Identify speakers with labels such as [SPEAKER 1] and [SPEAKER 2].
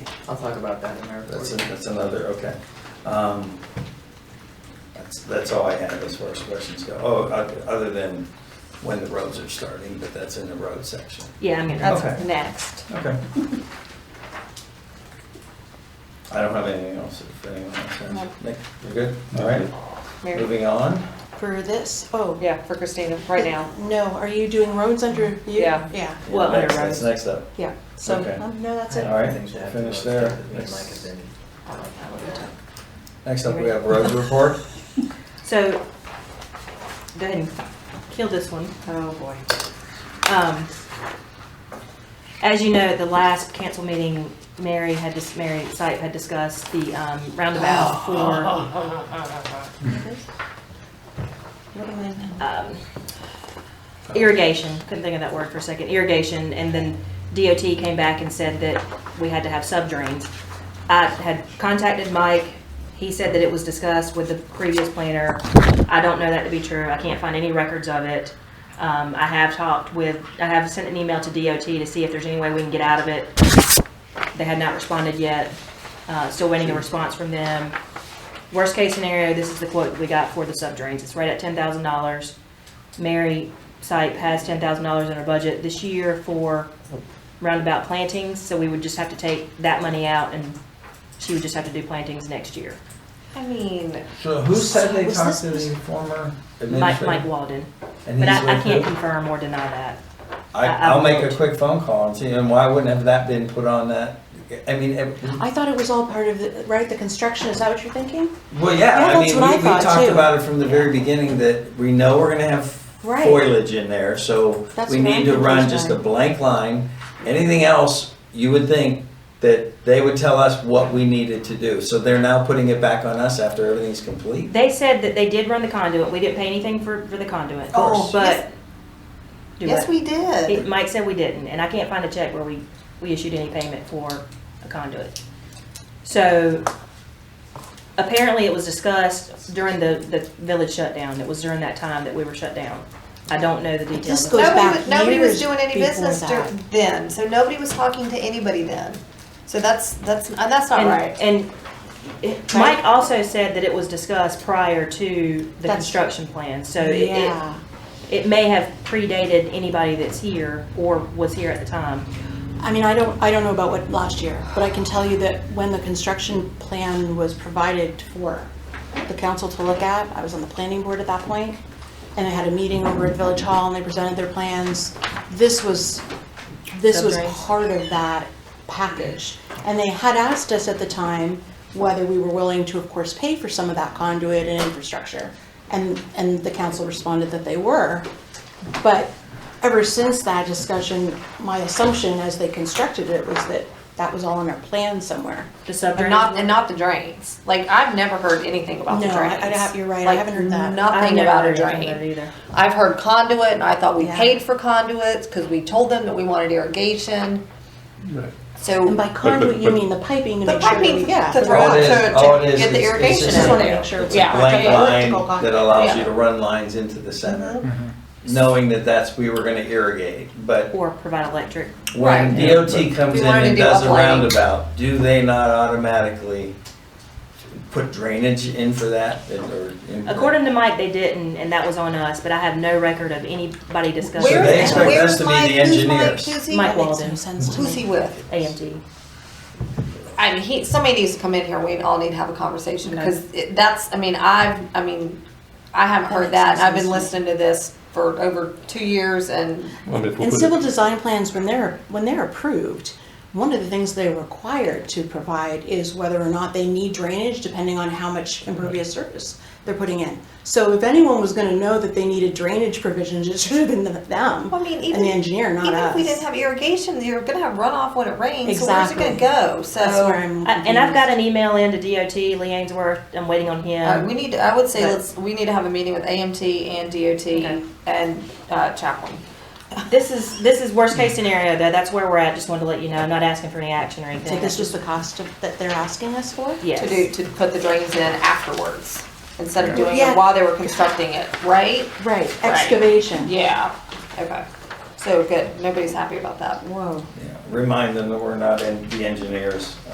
[SPEAKER 1] I'll talk about that in my report.
[SPEAKER 2] That's, a- that's another, okay. Um, That's, that's all I have as far as questions go. Oh, o- other than when the roads are starting, but that's in the road section.
[SPEAKER 3] Yeah, I'm
[SPEAKER 2] Okay.
[SPEAKER 3] gonna, next.
[SPEAKER 2] Okay. I don't have anything else, if anyone else has. Nick, you're good? All right,
[SPEAKER 3] Mary,
[SPEAKER 2] moving on.
[SPEAKER 4] For this, oh.
[SPEAKER 3] yeah, for Christina, right now. Mm-hmm.
[SPEAKER 4] No, are you doing roads under you?
[SPEAKER 3] Yeah.
[SPEAKER 4] Yeah,
[SPEAKER 3] Well, under
[SPEAKER 2] Next- That's
[SPEAKER 3] roads.
[SPEAKER 2] next up.
[SPEAKER 4] yeah, so,
[SPEAKER 2] Okay.
[SPEAKER 4] um, no, that's it.
[SPEAKER 2] All right,
[SPEAKER 1] Things that have to
[SPEAKER 2] finish
[SPEAKER 1] go
[SPEAKER 2] there.
[SPEAKER 1] together, Me and Mike have been,
[SPEAKER 4] I don't know what you're talking-
[SPEAKER 2] Next up, we have road report.
[SPEAKER 3] So, go ahead and kill this one. Oh, boy. Um, As you know, at the last council meeting, Mary had, dis- Mary Sipe had discussed the um, roundabout for,
[SPEAKER 4] What am I-
[SPEAKER 3] um, irrigation, couldn't think of that word for a second, irrigation, and then DOT came back and said that we had to have subdrains. I had contacted Mike, he said that it was discussed with the previous planner. I don't know that to be true, I can't find any records of it. Um, I have talked with, I have sent an email to DOT to see if there's any way we can get out of it. They had not responded yet, uh, still waiting a response from them. Worst case scenario, this is the quote we got for the subdrains, it's right at ten thousand dollars. Mary Sipe has ten thousand dollars in her budget this year for roundabout plantings, so we would just have to take that money out and she would just have to do plantings next year.
[SPEAKER 4] I mean,
[SPEAKER 2] So who said they
[SPEAKER 4] Was
[SPEAKER 2] talked to
[SPEAKER 4] this-
[SPEAKER 2] the former
[SPEAKER 3] Mike,
[SPEAKER 2] administrator?
[SPEAKER 3] Mike Walden,
[SPEAKER 2] And
[SPEAKER 3] but
[SPEAKER 2] he's
[SPEAKER 3] I, I
[SPEAKER 2] with
[SPEAKER 3] can't
[SPEAKER 2] who?
[SPEAKER 3] confirm or deny that.
[SPEAKER 2] I,
[SPEAKER 3] I- I
[SPEAKER 4] Uh,
[SPEAKER 2] I'll make a
[SPEAKER 4] um,
[SPEAKER 3] won't.
[SPEAKER 2] quick phone call and see, and why wouldn't have that been put on that? I mean, it-
[SPEAKER 4] I thought it was all part of the, right, the construction, is that what you're thinking?
[SPEAKER 2] well, yeah,
[SPEAKER 4] Yeah,
[SPEAKER 2] I
[SPEAKER 4] that's
[SPEAKER 2] mean,
[SPEAKER 4] what
[SPEAKER 2] we,
[SPEAKER 4] I
[SPEAKER 2] we
[SPEAKER 4] thought,
[SPEAKER 2] talked
[SPEAKER 4] too.
[SPEAKER 2] about it from the very beginning that we know we're gonna have
[SPEAKER 4] Right.
[SPEAKER 2] foliage in there, so
[SPEAKER 4] That's
[SPEAKER 2] we
[SPEAKER 4] what
[SPEAKER 2] need
[SPEAKER 4] I'm
[SPEAKER 2] to run
[SPEAKER 4] confused
[SPEAKER 2] just
[SPEAKER 4] by.
[SPEAKER 2] a blank line. Anything else, you would think that they would tell us what we needed to do, so they're now putting it back on us after everything's complete?
[SPEAKER 3] They said that they did run the conduit, we didn't pay anything for, for the conduit,
[SPEAKER 2] Oh,
[SPEAKER 3] but. Do
[SPEAKER 4] Yes,
[SPEAKER 3] what?
[SPEAKER 4] we did.
[SPEAKER 3] It- Mike said we didn't, and I can't find a check where we, we issued any payment for a conduit. So apparently it was discussed during the, the village shutdown. It was during that time that we were shut down. I don't know the details. Oh,
[SPEAKER 4] This
[SPEAKER 3] of
[SPEAKER 4] goes
[SPEAKER 3] that.
[SPEAKER 4] back
[SPEAKER 5] Nobody, was- nobody
[SPEAKER 4] years
[SPEAKER 5] was doing any
[SPEAKER 4] before
[SPEAKER 5] business dur-
[SPEAKER 4] that.
[SPEAKER 5] then, so nobody was talking to anybody then. So that's, that's, uh, that's not
[SPEAKER 3] And-
[SPEAKER 5] right.
[SPEAKER 3] And it- Mike also said that it was discussed prior to the
[SPEAKER 4] That's-
[SPEAKER 3] construction plan, so uh, it- it,
[SPEAKER 4] Yeah,
[SPEAKER 3] it may have predated anybody that's here or was here at the time.
[SPEAKER 4] I mean, I don't, I don't know about what last year, but I can tell you that when the construction plan was provided for the council to look at, I was on the planning board at that point, and I had a meeting over at Village Hall and they presented their plans. This was, this was
[SPEAKER 3] Subdrains.
[SPEAKER 4] part of that package. And they had asked us at the time whether we were willing to, of course, pay for some of that conduit and infrastructure. And, and the council responded that they were. But ever since that discussion, my assumption as they constructed it was that that was all in our plan somewhere.
[SPEAKER 3] The subdrain.
[SPEAKER 5] And not, and not the drains. Like, I've never heard anything about the
[SPEAKER 4] No, I-
[SPEAKER 5] drains.
[SPEAKER 4] I have- you're right, I
[SPEAKER 5] Like,
[SPEAKER 4] haven't heard that.
[SPEAKER 3] I've
[SPEAKER 5] Nothing
[SPEAKER 3] never
[SPEAKER 5] about a
[SPEAKER 3] heard anything about it
[SPEAKER 5] drain.
[SPEAKER 3] Either.
[SPEAKER 5] I've heard conduit and I thought we
[SPEAKER 4] Yeah.
[SPEAKER 5] paid for conduits because we told them that we wanted irrigation.
[SPEAKER 4] And
[SPEAKER 5] So,
[SPEAKER 4] by conduit, you mean the piping to
[SPEAKER 5] The
[SPEAKER 4] make sure that we
[SPEAKER 5] piping
[SPEAKER 4] get.
[SPEAKER 5] to
[SPEAKER 2] All it is-
[SPEAKER 5] to- to
[SPEAKER 2] all it is
[SPEAKER 5] get the
[SPEAKER 2] is- it's
[SPEAKER 5] irrigation
[SPEAKER 2] just
[SPEAKER 4] in
[SPEAKER 2] a-
[SPEAKER 4] there. Sure.
[SPEAKER 2] It's a
[SPEAKER 5] Yeah.
[SPEAKER 2] blank
[SPEAKER 4] Yeah.
[SPEAKER 2] line that allows you
[SPEAKER 5] Yeah.
[SPEAKER 2] to run lines into the center,
[SPEAKER 4] Mm-hmm.
[SPEAKER 2] knowing that that's, we were gonna irrigate. But
[SPEAKER 3] Or provide electric.
[SPEAKER 2] when
[SPEAKER 5] Right.
[SPEAKER 2] DOT comes
[SPEAKER 5] We
[SPEAKER 2] in
[SPEAKER 5] wanted to
[SPEAKER 2] and
[SPEAKER 5] do
[SPEAKER 2] does a
[SPEAKER 5] uplighting.
[SPEAKER 2] roundabout, do they not automatically put drainage in for that? or in-
[SPEAKER 3] According to Mike, they didn't, and that was on us, but I have no record of anybody discussing.
[SPEAKER 2] So
[SPEAKER 5] where's,
[SPEAKER 2] they expect
[SPEAKER 3] that.
[SPEAKER 2] us
[SPEAKER 5] where's
[SPEAKER 2] to be
[SPEAKER 5] Mike,
[SPEAKER 2] the
[SPEAKER 5] who's Mike,
[SPEAKER 2] engineers.
[SPEAKER 5] who's he?
[SPEAKER 3] Mike
[SPEAKER 4] That makes
[SPEAKER 3] Walden.
[SPEAKER 4] no sense to
[SPEAKER 5] Who's he
[SPEAKER 4] me.
[SPEAKER 5] with?
[SPEAKER 3] AMT.
[SPEAKER 5] I mean, he, somebody needs to come in here, we all need to have a conversation,
[SPEAKER 3] Okay.
[SPEAKER 5] because that's, I mean, I've, I mean, I haven't
[SPEAKER 4] That
[SPEAKER 5] heard
[SPEAKER 4] makes
[SPEAKER 5] that, and I've
[SPEAKER 4] sense.
[SPEAKER 5] been listening to this for over two years, and
[SPEAKER 6] Well, if we
[SPEAKER 4] And
[SPEAKER 6] put
[SPEAKER 4] civil
[SPEAKER 6] it-
[SPEAKER 4] design plans, when they're, when they're approved, one of the things they're required to provide is whether or not they need drainage, depending on how much impervious surface they're putting in. So if anyone was gonna know that they needed drainage provisions, it should have been the- them
[SPEAKER 5] Well, I mean,
[SPEAKER 4] and
[SPEAKER 5] even-
[SPEAKER 4] the engineer, not
[SPEAKER 5] even if we
[SPEAKER 4] us.
[SPEAKER 5] didn't have irrigation, you're gonna have runoff when it rains, so where's it gonna
[SPEAKER 4] Exactly.
[SPEAKER 5] go?
[SPEAKER 4] That's where
[SPEAKER 5] So,
[SPEAKER 4] I'm.
[SPEAKER 3] I- And I've got an
[SPEAKER 4] confused.
[SPEAKER 3] email in to DOT, Lee Ainsworth, I'm waiting on
[SPEAKER 5] uh,
[SPEAKER 3] him.
[SPEAKER 5] we need, to- I would say,
[SPEAKER 3] But-
[SPEAKER 5] let's, we need to have a meeting with AMT and
[SPEAKER 3] Okay.
[SPEAKER 5] DOT and uh, Chaplain.
[SPEAKER 3] This is, this is worst case scenario, though, that's where we're at, just wanted to let you know, I'm not asking for any action or anything.
[SPEAKER 4] So this was the cost of, that they're asking us for?
[SPEAKER 5] to
[SPEAKER 3] Yes.
[SPEAKER 5] do, to put the drains in afterwards, instead of doing
[SPEAKER 4] Yeah.
[SPEAKER 5] it while they were constructing it, right?
[SPEAKER 4] Right,
[SPEAKER 5] Right.
[SPEAKER 4] excavation.
[SPEAKER 5] Yeah, okay, so good, nobody's happy about that.
[SPEAKER 4] Whoa.
[SPEAKER 2] Yeah, Remind them that we're not in- the engineers.